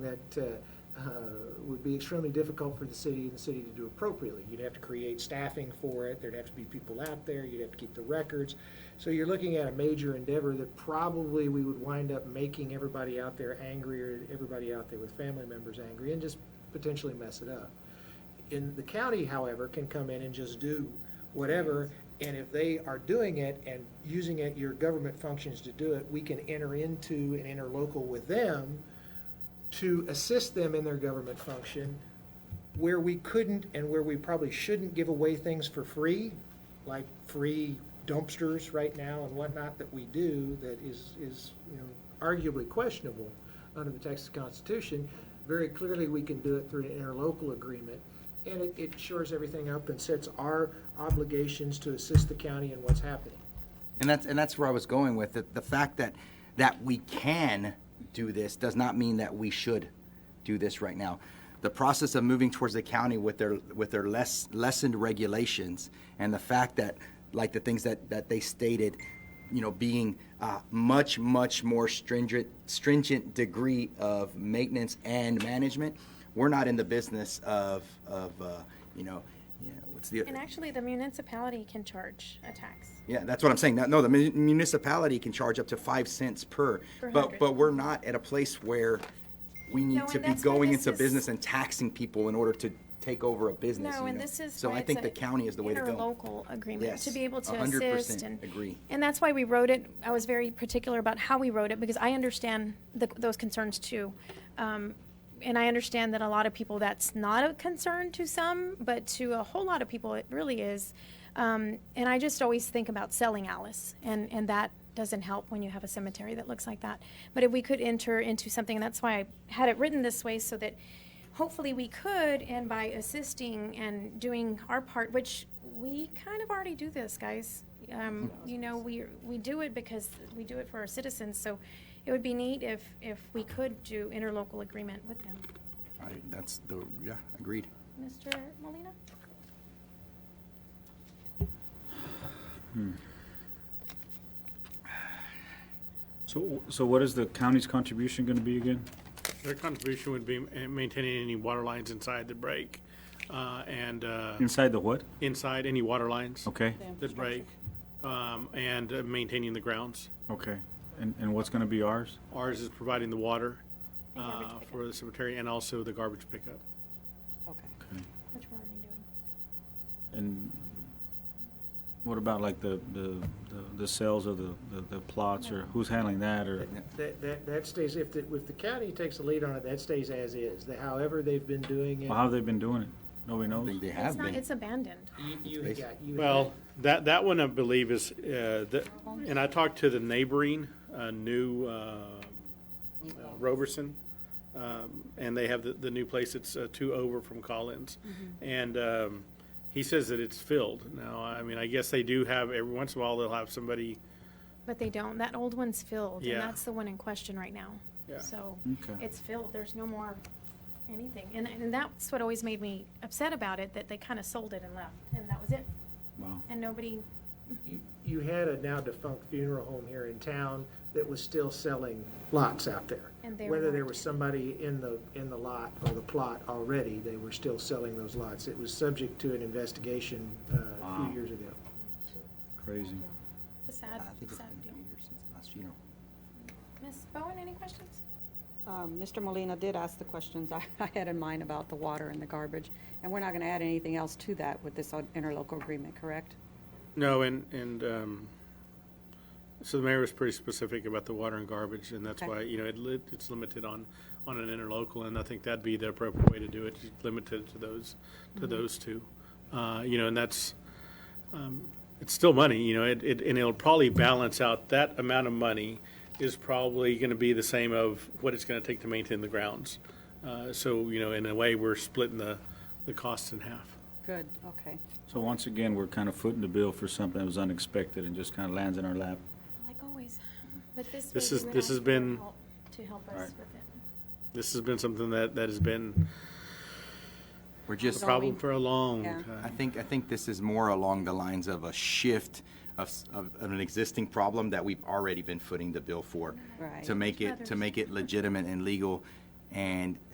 that uh, uh, would be extremely difficult for the city and the city to do appropriately. You'd have to create staffing for it, there'd have to be people out there, you'd have to keep the records. So you're looking at a major endeavor that probably we would wind up making everybody out there angry or everybody out there with family members angry and just potentially mess it up. In the county, however, can come in and just do whatever, and if they are doing it and using it, your government functions to do it, we can enter into and interlocal with them to assist them in their government function where we couldn't and where we probably shouldn't give away things for free, like free dumpsters right now and whatnot that we do that is, is, you know, arguably questionable under the Texas Constitution. Very clearly, we can do it through an interlocal agreement. And it, it shores everything up and sets our obligations to assist the county in what's happening. And that's, and that's where I was going with it. The fact that, that we can do this does not mean that we should do this right now. The process of moving towards the county with their, with their less, lessened regulations and the fact that, like the things that, that they stated, you know, being uh, much, much more stringent, stringent degree of maintenance and management, we're not in the business of, of, uh, you know, you know, what's the? And actually, the municipality can charge a tax. Yeah, that's what I'm saying. That- No, the mu- municipality can charge up to five cents per, Per but, hundred. but we're not at a place where we No, need and to be that's why going this into is- business and taxing people in order to take over a business, No, you and know? this is. So why I it's think an the county is the way to go. Interlocal agreement, to Yes, be able to 100% assist and. agree. And that's why we wrote it, I was very particular about how we wrote it, because I understand the, those concerns too. Um, and I understand that a lot of people, that's not a concern to some, but to a whole lot of people, it really is. Um, and I just always think about selling Alice, and, and that doesn't help when you have a cemetery that looks like that. But if we could enter into something, and that's why I had it written this way, so that hopefully we could, and by assisting and doing our part, which we kind of already do this, guys. Um, you know, we, we do it because we do it for our citizens, so it would be neat if, if we could do interlocal agreement with them. I- That's the, yeah, agreed. Mr. Molina? So, so what is the county's contribution gonna be again? Their contribution would be ma- maintaining any water lines inside the break, uh, and, uh, Inside the what? inside any water lines Okay, that break, um, and uh, maintaining the grounds. okay. And, and what's gonna be ours? Ours is providing the water, garbage uh, pickup. for the cemetery and also the garbage pickup. Okay. Okay. Which we're already doing. And what about like the, the, the- the sales of the, the- the plots or who's handling that or? That, that, that stays, if the, if the county takes the lead on it, that stays as is. The- However they've been doing it. Well, how have they been doing it? Nobody I knows? think they It's have not, been. it's abandoned. You, you, It's yeah, you. Well, that, that one I believe is, uh, the- and I talked to the neighboring, uh, new, uh, uh, Roberson, um, and they have the, the new place, it's uh, two over from Collins. And um, he says that it's filled. Now, I mean, I guess they do have, every once in a while, they'll have somebody, But they don't. That old one's filled, Yeah. and that's the one in question right now. Yeah. So Okay. it's filled. There's no more anything. And, and that's what always made me upset about it, that they kind of sold it and left, and that was it. Wow. And nobody, You- You had a now defunct funeral home here in town that was still selling lots out there. And they were Whether there not. was somebody in the, in the lot or the plot already, they were still selling those lots. It was subject to an investigation uh, a Wow. few years ago. Crazy. it's a sad, I think it's sad been deal. two years since the last funeral. Ms. Bowen, any questions? Um, Mr. Molina did ask the questions I I had in mind about the water and the garbage, and we're not going to add anything else to that with this uh, interlocal agreement, correct? no, and, and um, so the mayor was pretty specific about the water and garbage, and that's Okay. why, you know, it, lit- it's limited on, on an interlocal, and I think that'd be the appropriate way to do it, just limit it to those, to those two. Uh, You know, and that's, um, it's still money, you know, it, it, and it'll probably balance out, that amount of money is probably gonna be the same of what it's gonna take to maintain the grounds. Uh, So, you know, in a way, we're splitting the, the costs in half. Good, okay. So once again, we're kind of footing the bill for something that was unexpected and just kind of lands in our lap. Like always. But this way. This you is- and this I has can been- help To help Right. us with it. This has been something that, that has been We're a just, problem for a long Yeah. I time. think, I think this is more along the lines of a shift of, s- of of an existing problem that we've already been footing the bill for. Right. To make it, to make it legitimate and legal And